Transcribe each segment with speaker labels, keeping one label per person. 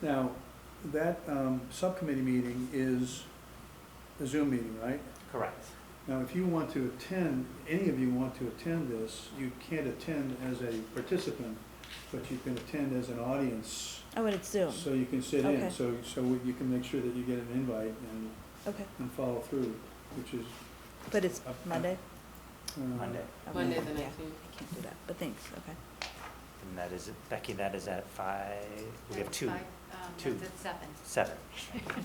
Speaker 1: Now, that um, subcommittee meeting is a Zoom meeting, right?
Speaker 2: Correct.
Speaker 1: Now, if you want to attend, any of you want to attend this, you can't attend as a participant, but you can attend as an audience,
Speaker 3: Oh, and it's Zoom.
Speaker 1: so you can sit in.
Speaker 3: Okay.
Speaker 1: So, so you can make sure that you get an invite and,
Speaker 3: Okay,
Speaker 1: and follow through, which is.
Speaker 3: but it's
Speaker 1: up-
Speaker 3: Monday?
Speaker 1: uh,
Speaker 2: Monday.
Speaker 3: Okay.
Speaker 4: Monday the
Speaker 3: Yeah,
Speaker 4: nineteenth.
Speaker 3: I can't do that, but thanks, okay.
Speaker 2: And that is, Becky, that is at five, we have two, two.
Speaker 5: um, That's at seven.
Speaker 2: seven.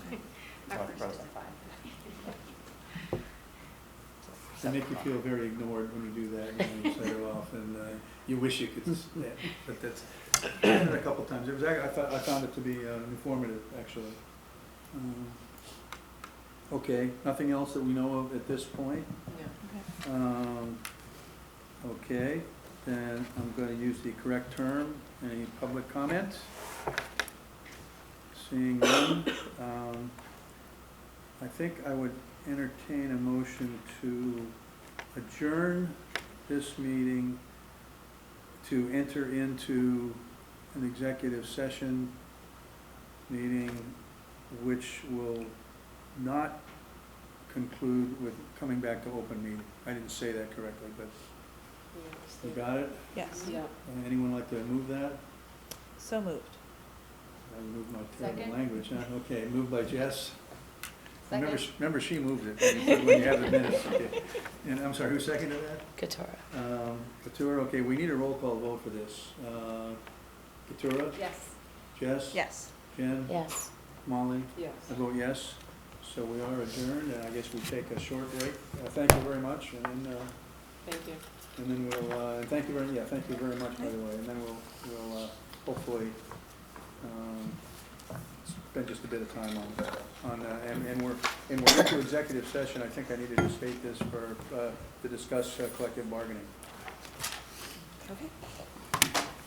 Speaker 5: My
Speaker 2: Well,
Speaker 5: first
Speaker 2: probably
Speaker 5: is at
Speaker 2: five.
Speaker 1: They make you feel very ignored when you do that, and you set it off, and uh, you wish you could, s- yeah, but that's, I've done it a couple times. It was, ac- I thought, I found it to be uh, informative, actually. Um, Okay, nothing else that we know of at this point?
Speaker 4: Yeah.
Speaker 1: Um, Okay, then I'm going to use the correct term. Any public comment? Seeing none. um, I think I would entertain a motion to adjourn this meeting to enter into an executive session meeting, which will not conclude with coming back to open meeting. I didn't say that correctly, but you got it?
Speaker 3: Yes,
Speaker 4: Yeah.
Speaker 1: Uh, Anyone like to move that?
Speaker 3: so moved.
Speaker 1: I moved my terrible
Speaker 5: Second.
Speaker 1: language, huh? Okay, moved by Jess. Remember,
Speaker 5: Second.
Speaker 1: sh- remember she moved it when you- when you have the minutes. okay. And I'm sorry, who seconded that?
Speaker 4: Katura.
Speaker 1: Um, Katura, okay, we need a roll call vote for this. Uh, Katura,
Speaker 5: Yes.
Speaker 1: Jess?
Speaker 3: Yes.
Speaker 1: Jen?
Speaker 4: Yes.
Speaker 1: Molly?
Speaker 4: Yes.
Speaker 1: I vote yes, so we are adjourned, and I guess we take a short break. Uh, Thank you very much, and then, uh,
Speaker 4: Thank you.
Speaker 1: And then we'll, uh, thank you very, yeah, thank you very much, by the way, and then we'll, we'll, uh, hopefully, um, spend just a bit of time on, on, uh, and, and we're, and we're into executive session, I think I needed to state this for, uh, to discuss uh, collective bargaining.
Speaker 3: Okay.